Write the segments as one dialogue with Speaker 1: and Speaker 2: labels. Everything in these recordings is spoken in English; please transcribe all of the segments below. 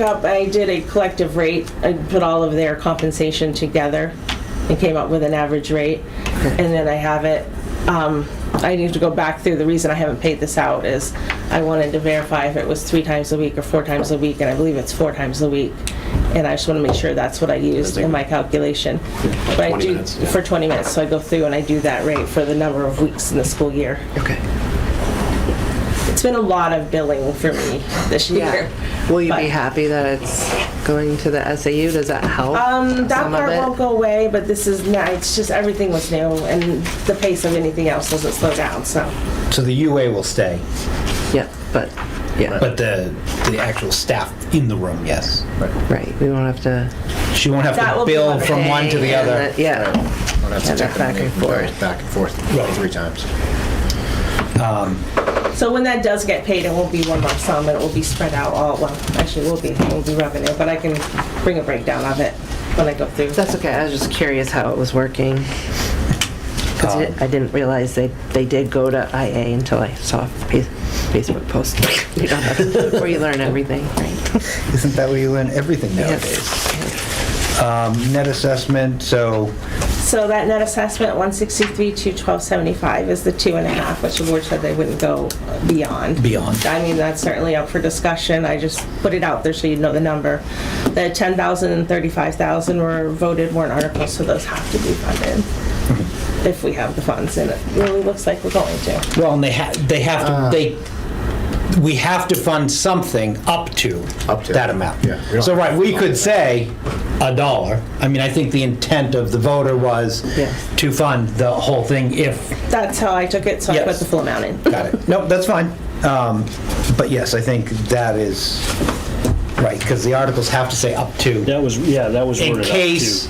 Speaker 1: up, I did a collective rate, I put all of their compensation together and came up with an average rate. And then I have it, um, I need to go back through, the reason I haven't paid this out is I wanted to verify if it was three times a week or four times a week, and I believe it's four times a week. And I just want to make sure that's what I used in my calculation. But I
Speaker 2: 20
Speaker 1: do
Speaker 2: minutes, yeah.
Speaker 1: For 20 minutes, so I go through and I do that rate for the number of weeks in the school year.
Speaker 3: Okay.
Speaker 1: It's been a lot of billing for me this year.
Speaker 3: Will you be
Speaker 1: But-
Speaker 3: happy that it's going to the SAU? Does that help?
Speaker 1: Um, that
Speaker 3: Some of
Speaker 1: part
Speaker 3: it?
Speaker 1: won't go away, but this is, not- it's just, everything was new, and the pace of anything else doesn't slow down, so.
Speaker 4: So the UA will stay,
Speaker 3: Yeah, but, yeah,
Speaker 4: but the, the actual staff in the room, yes.
Speaker 3: right. We won't have to.
Speaker 4: She won't have
Speaker 1: That will
Speaker 4: to
Speaker 1: be
Speaker 4: bill
Speaker 1: one
Speaker 4: from one to the
Speaker 3: Hey, and
Speaker 4: other.
Speaker 3: that- Yeah.
Speaker 5: Don't have to
Speaker 3: Yeah,
Speaker 5: check
Speaker 3: back
Speaker 5: them
Speaker 3: and
Speaker 5: in, go
Speaker 3: forth.
Speaker 5: Back and forth,
Speaker 4: Right.
Speaker 5: three times.
Speaker 1: So when that does get paid, it won't be one lump sum, it will be spread out all, well, actually, it will be, it will be revenue, but I can bring a breakdown of it when I go through.
Speaker 3: That's okay, I was just curious how it was working. 'Cause
Speaker 4: Um,
Speaker 3: I I didn't realize they, they did go to IA until I saw a Fa- Facebook post. You don't have to- Where you learn everything, right?
Speaker 4: Isn't that where you learn everything nowadays? Um, Net assessment, so
Speaker 1: So that net assessment, 163 to 1275 is the two and a half, which the board said they wouldn't go beyond.
Speaker 4: Beyond.
Speaker 1: I mean, that's certainly up for discussion, I just put it out there so you know the number. The 10,000 and 35,000 were voted warrant articles, so those have to be funded if we have the funds, and it really looks like we're going to.
Speaker 4: Well, and they have, they have to, they, we have to fund something up to
Speaker 5: Up to.
Speaker 4: that amount.
Speaker 5: Yeah.
Speaker 4: So, right, we could say a dollar. I mean, I think the intent of the voter was
Speaker 3: Yes.
Speaker 4: to fund the whole thing if,
Speaker 1: That's how I took it, so I put
Speaker 4: Yes.
Speaker 1: the full amount in.
Speaker 4: got it. Nope, that's fine. Um, But yes, I think that is, right, because the articles have to say up to,
Speaker 6: That was, yeah, that was
Speaker 4: in
Speaker 6: worded up,
Speaker 4: case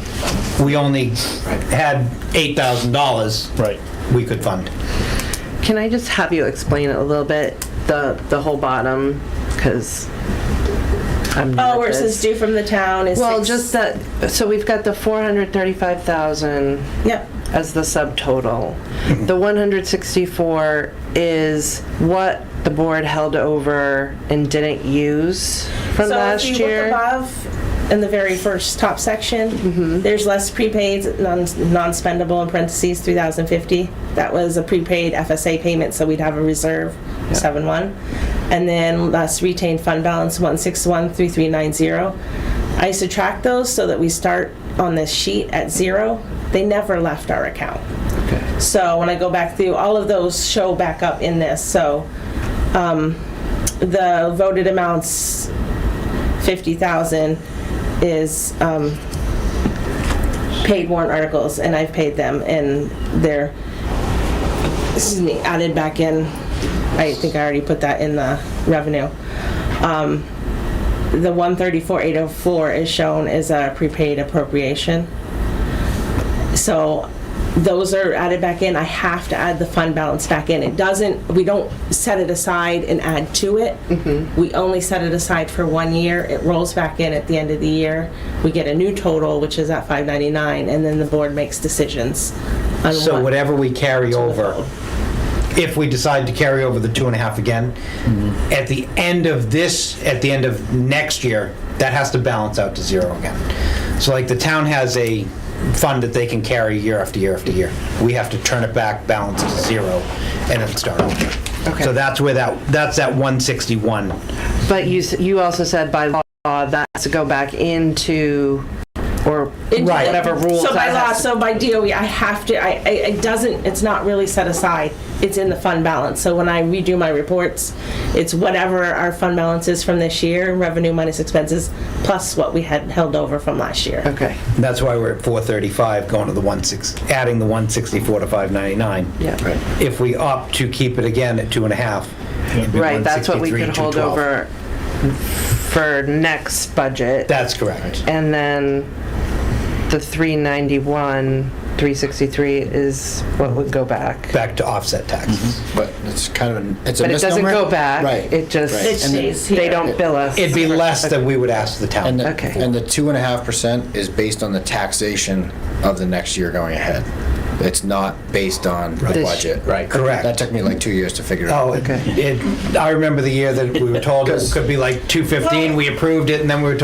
Speaker 6: too.
Speaker 4: we only had $8,000.
Speaker 6: Right.
Speaker 4: We could fund.
Speaker 3: Can I just have you explain it a little bit, the, the whole bottom, because I'm not
Speaker 1: Oh, where it says
Speaker 3: this.
Speaker 1: due from the town is
Speaker 3: Well,
Speaker 1: six-
Speaker 3: just that, so we've got the 435,000
Speaker 1: Yep,
Speaker 3: as the subtotal.
Speaker 1: Mm-hmm.
Speaker 3: The 164 is what the board held over and didn't use from last
Speaker 1: So if you look
Speaker 3: year.
Speaker 1: above, in the very first top
Speaker 3: Mm-hmm.
Speaker 1: section, there's less prepaids, non- non-spendable in parentheses, 3,050. That was a prepaid FSA payment, so we'd have a reserve, 7-1. And then less retained fund balance, 1613390. I subtract those so that we start on this sheet at zero. They never left our account. So when I go back through, all of those show back up in this, so um, the voted amounts 50,000 is um, paid warrant articles, and I've paid them, and they're, excuse me, added back in. I think I already put that in the revenue. Um, The 134,804 is shown as a prepaid appropriation. So those are added back in. I have to add the fund balance back in. It doesn't, we don't set it aside and add to it. We only set it aside for one year. It rolls back in at the end of the year. We get a new total, which is at 599, and then the board makes decisions on
Speaker 4: So
Speaker 1: what.
Speaker 4: whatever we carry over, if we decide to carry over the two and a half again,
Speaker 3: Mm-hmm.
Speaker 4: at the end of this, at the end of next year, that has to balance out to zero again. So like the town has a fund that they can carry year after year after year. We have to turn it back, balance to zero, and then start over.
Speaker 3: Okay.
Speaker 4: So that's where that, that's that 161.
Speaker 3: But you, s- you also said by law, that has to go back into, or
Speaker 4: Right.
Speaker 3: whatever rules
Speaker 1: So by
Speaker 3: that
Speaker 1: law,
Speaker 3: has.
Speaker 1: so by DOE, I have to, I, I- it doesn't, it's not really set aside. It's in the fund balance. So when I redo my reports, it's whatever our fund balance is from this year, revenue minus expenses, plus what we had held over from last year.
Speaker 3: Okay,
Speaker 4: That's why we're at 435, going to the 16, adding the 164 to 599.
Speaker 3: Yeah. Right.
Speaker 4: If we opt to keep it again at two and a half. it'd be
Speaker 3: right, that's what we
Speaker 4: 163,
Speaker 3: could hold
Speaker 4: 212.
Speaker 3: over for next budget.
Speaker 4: That's correct.
Speaker 3: And then the 391, 363 is what would go back.
Speaker 4: Back to offset
Speaker 3: Mm-hmm.
Speaker 4: taxes.
Speaker 5: But it's kind of, an it's a misnomer.
Speaker 3: But it doesn't go back.
Speaker 5: Right.
Speaker 3: It just-
Speaker 5: right.
Speaker 1: It
Speaker 5: And the-
Speaker 1: stays
Speaker 3: They
Speaker 1: here.
Speaker 3: don't bill us.
Speaker 4: It'd be less than we would ask the
Speaker 5: And
Speaker 4: town.
Speaker 5: the,
Speaker 3: Okay.
Speaker 5: and the two and a half percent is based on the taxation of the next year going ahead. It's not based on the
Speaker 3: This-
Speaker 5: budget.
Speaker 4: Right, correct.
Speaker 5: That took me like two years to figure out.
Speaker 4: Oh, it,
Speaker 3: Okay.
Speaker 4: it- I remember the year that we were told it could be like 215, we approved it, and then we were told